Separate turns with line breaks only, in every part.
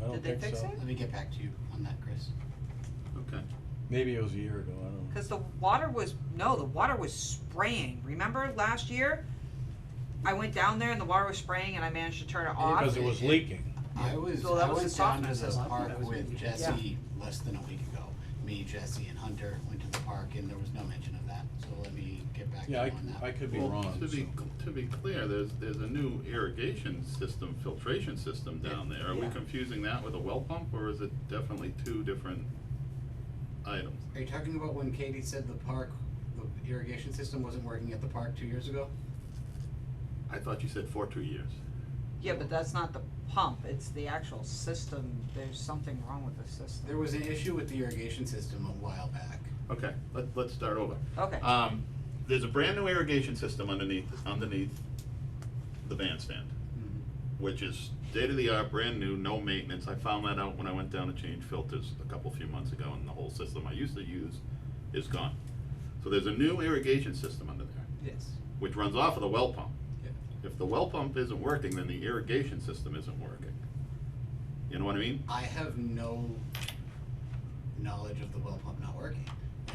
don't
Did they
think
fix
so.
it?
Let me get back to you on that, Chris.
Okay.
Maybe it was a year ago, I don't know.
Cause the water was, no, the water was spraying, remember last year? I went down there and the water was spraying and I managed to turn it off.
Because it was leaking.
I was,
So that
I
was
was
the
down to
softness
the
of it.
park
That was
with
maybe-
Jesse less than a week ago. Me, Jesse and Hunter went to the park and there was no mention of that, so let me get back to you
Yeah, I,
on that.
I could be
Well,
wrong,
To be,
so.
to be clear, there's, there's a new irrigation system, filtration system down there. Are we
Yeah.
confusing that with a well pump, or is it definitely two different items?
Are you talking about when Katie said the park, the irrigation system wasn't working at the park two years ago?
I thought you said for two years.
Yeah, but that's not the pump, it's the actual system, there's something wrong with the
There
system.
was an issue with the irrigation system a while back.
Okay, let, let's start over.
Okay,
Uh,
Um, there's a brand new irrigation system underneath, underneath the bandstand,
Mm-hmm.
which is state of the art, brand new, no maintenance. I found that out when I went down to change filters a couple few months ago, and the whole system I used to use is gone. So there's a new irrigation system under there,
Yes.
which runs off of the well pump.
Yeah.
If the well pump isn't working, then the irrigation system isn't working. You know what I mean?
I have no knowledge of the well pump not working.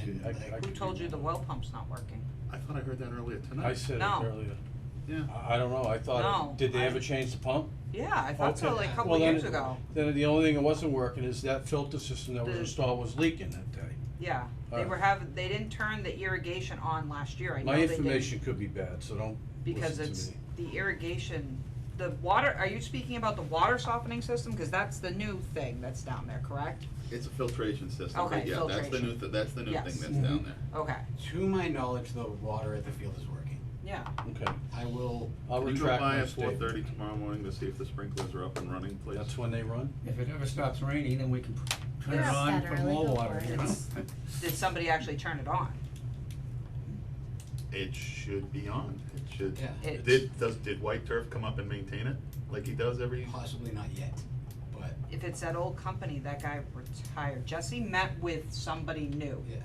And
I-
like,
I-
who told you the well pump's not working?
I thought I heard that earlier tonight.
I said it
No.
earlier.
Yeah.
I, I don't know, I
No,
thought, did they
I-
ever change the pump?
Yeah, I thought so,
Okay.
like a couple
Well, then
years
it-
ago,
Then the only thing that wasn't working is that filter system that was
The-
installed was leaking that day.
yeah, they
Alright.
were having, they didn't turn the irrigation on last year, I know
My
they didn't.
information could be bad, so don't
because
listen
it's
to me.
the irrigation, the water, are you speaking about the water softening system? Cause that's the new thing that's down there, correct?
It's a filtration system, but
Okay,
yeah, that's the new,
filtration.
th- that's the new thing
Yes.
that's down
Mm-hmm.
Mhm.
there.
Okay,
to my knowledge, the water at the field is working.
yeah,
Okay,
I will,
I'll
Can you go
retract
by
my
at four
statement.
thirty tomorrow morning to see if the sprinklers are up and running, please?
That's when they run?
If it ever stops raining, then we can p- turn it
Yeah.
on
Saturday,
for more
go
water,
for it.
you know?
It's-
did somebody actually turn it on?
It should be on, it should.
Yeah.
It-
Did, does, did White Turf come up and maintain it, like he does every?
possibly not yet, but
If it's that old company, that guy retired, Jesse met with somebody new,
yeah.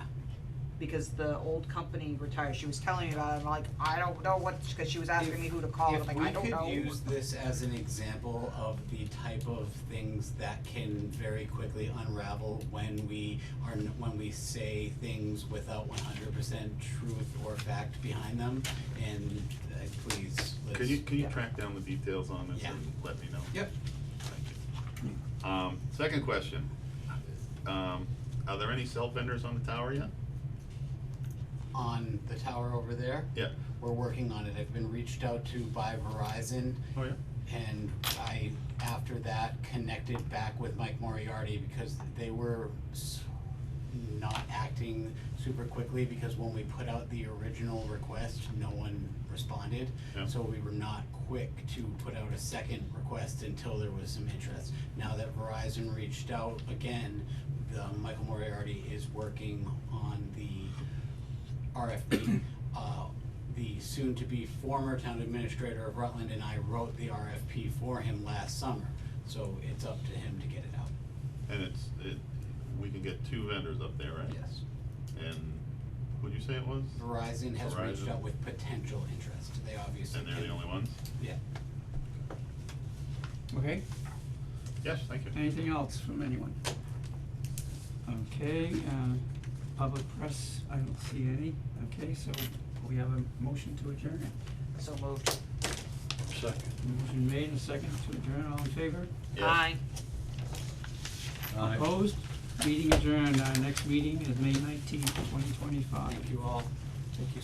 because the old company retired, she was telling me about it, I'm like, I don't know what, cause she was asking me who to call, I'm like, I don't know.
If we could use this as an example of the type of things that can very quickly unravel when we are, n- when we say things without one hundred percent truth or fact behind them, and uh, please, let's.
Can you, can you
Yeah.
track down the details on this
Yeah.
and let me know?
Yep.
Thank you. Um, second question, um, are there any cell vendors on the tower yet?
On the tower over there,
Yeah,
we're working on it, I've been reached out to by Verizon,
oh yeah,
And I, after that, connected back with Mike Moriarty because they were s- not acting super quickly because when we put out the original request, no one responded.
Yeah.
So we were not quick to put out a second request until there was some interest. Now that Verizon reached out again, the Michael Moriarty is working on the RFP. Uh, The soon-to-be former town administrator of Rutland and I wrote the RFP for him last summer, so it's up to him to get it out.
and it's, it, we can get two vendors up there, right?
Yes.
And who'd you say it was?
Verizon has reached
Verizon.
out with potential interest, they obviously.
And they're the
can-
only ones?
Yeah.
Okay,
Yes, thank you.
anything else from anyone? Okay, uh, public press, I don't see any, okay, so we have a motion to adjourn.
So moved,
Second.
Motion made and second to adjourn, all in favor?
Yes.
aye.
Aye.
Opposed? Meeting adjourned, our next meeting is May nineteenth, twenty twenty-five.
Thank you all. Thank you